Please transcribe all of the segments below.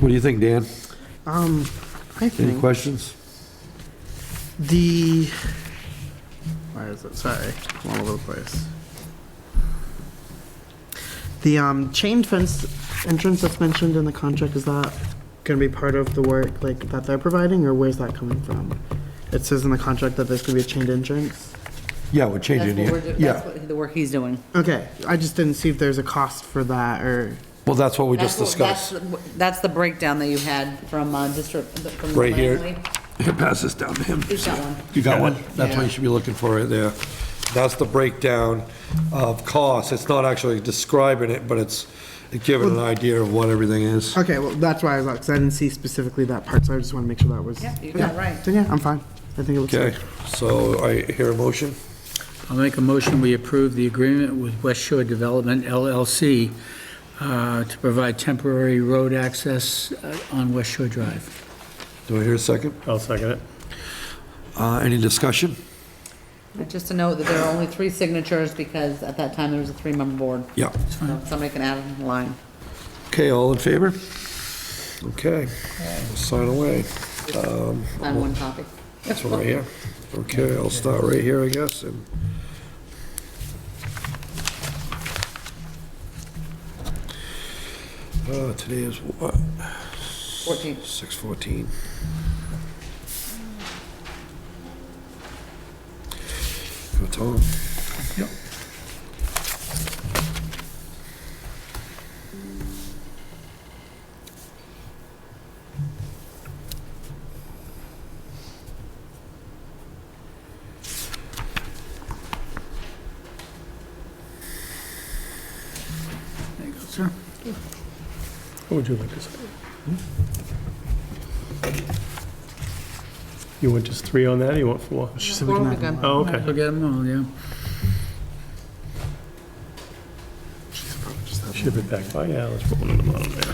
What do you think, Dan? Um, I Any think questions? the, where is it? Sorry, I'm all over the place. The, um, chain fence entrance that's mentioned in the contract, is that gonna be part of the work, like, that they're providing, or where's that coming from? It says in the contract that there's gonna be a chained entrance? Yeah, we're That's changing what we're, it. do- that's Yeah, what, the work he's doing. Okay, I just didn't see if there's a cost for that, or, well, that's what we just That's what- that's discussed. the- That's the breakdown that you had from, uh, district, from the. Right here. planning board. Pass this down to him. He's got one. You got one? That's what you should be looking for right there. That's the breakdown of costs. It's not actually describing it, but it's giving an idea of what everything is. okay, well, that's why I was, because I didn't see specifically that part, so I just wanna make sure that was. Yeah, you got it right. Then, yeah, I'm fine. I think it looks good. Okay, so I hear a motion. I'll make a motion, we approve the agreement with West Shore Development LLC uh, to provide temporary road access uh, on West Shore Drive. Do I hear a second? I'll second it. Uh, any discussion? Just to note that there are only three signatures because at that time there was a three-member board. Yeah. So Somebody can add a line. Okay, all in favor? Okay, sign away. Um, Sign one copy. That's one right here. Okay, I'll start right here, I guess, and Uh, today is what, Fourteen. 6:14. Go, Tom. Yep. There you go, sir. What would you like to say? Hmm? You want just three on that, or you want four? Just so we can Well, have we them got- all. Oh, We'll okay. get them all, yeah. She's probably just have Ship it back by, yeah, let's put one on the bottom there.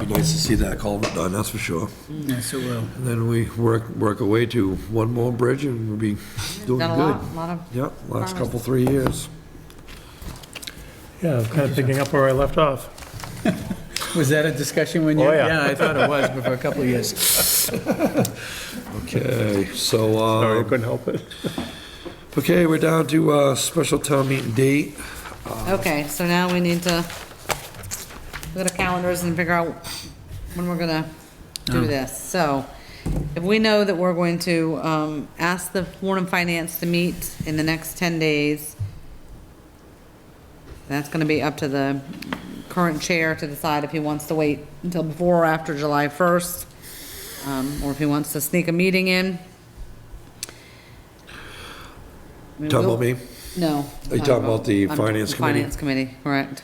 Be nice to see that culvert done, that's for sure. Yes, it will. And then we work, work our way to one more bridge and we'll be doing Done a good. lot, lot of, Yep, last couple, three years. Yeah, I'm kind of picking up where I left off. Was that a discussion when you? Oh, yeah. I thought it was, but for a couple of years. Okay, so, Sorry, I uh, couldn't help it. okay, we're down to, uh, special town meeting date. okay, so now we need to look at our calendars and figure out when we're gonna do this. So if we know that we're going to, um, ask the Warren and Finance to meet in the next ten days, That's gonna be up to the current chair to decide if he wants to wait until before or after July first, um, or if he wants to sneak a meeting in. I mean, Talking we'll- about me? No. Are you talking about the I'm- finance committee? Finance committee, correct.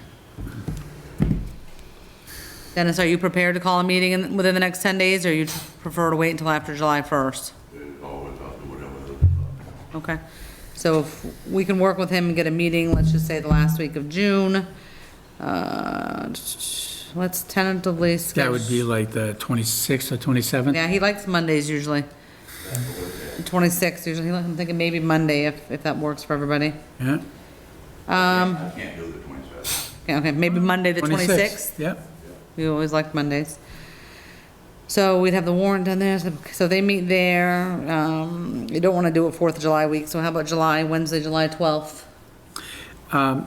Dennis, are you prepared to call a meeting in, within the next ten days, or you prefer to wait until after July first? Okay, so if we can work with him and get a meeting, let's just say the last week of June, uh, let's tentatively schedule. That would be like the 26th or 27th? Yeah, he likes Mondays usually. Twenty-six usually, I'm thinking maybe Monday if, if that works for everybody. Yeah? Okay, okay, maybe Monday the twenty-sixth? Yeah. We always liked Mondays. So we'd have the warrant done there, so- so they meet there, um, you don't wanna do it Fourth of July week, so how about July, Wednesday, July twelfth? Um,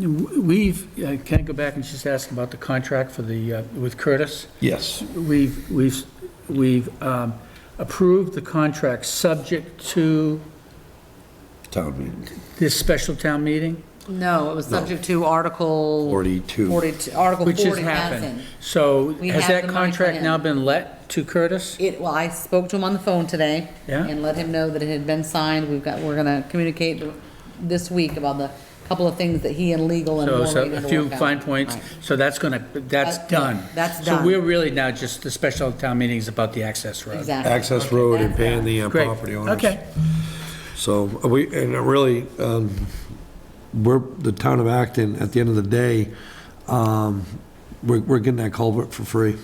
w- We've, uh, can I go back and just ask about the contract for the, uh, with Curtis? Yes. We've, we've, we've um, approved the contract subject to Town meeting. this special town meeting, No, it was subject to Article. 42. Forty-two, Article which has forty happened. passing. So We has have that the money for contract him. now been let to Curtis? It, well, I spoke to him on the phone today. Yeah. And let him know that it had been signed, we've got, we're gonna communicate this week about the couple of things that he and legal and. So Lori so need a to few work out. fine points, Right. so that's gonna, that's That's- done. that's So done. we're really now just, the special town meeting is about the access road. Exactly. Access road and that's paying the uh, Great. property owners. Okay, So are we, and it really, um, we're, the town of Acton, at the end of the day, um, we're, we're getting that culvert for free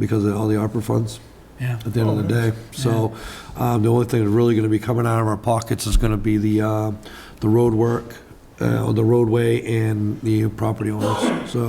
because of all the ARPA funds yeah. at the end of the day. So, um, the only thing that's really gonna be coming out of our pockets is gonna be the, uh, the road work, uh, the roadway and the property owners, so.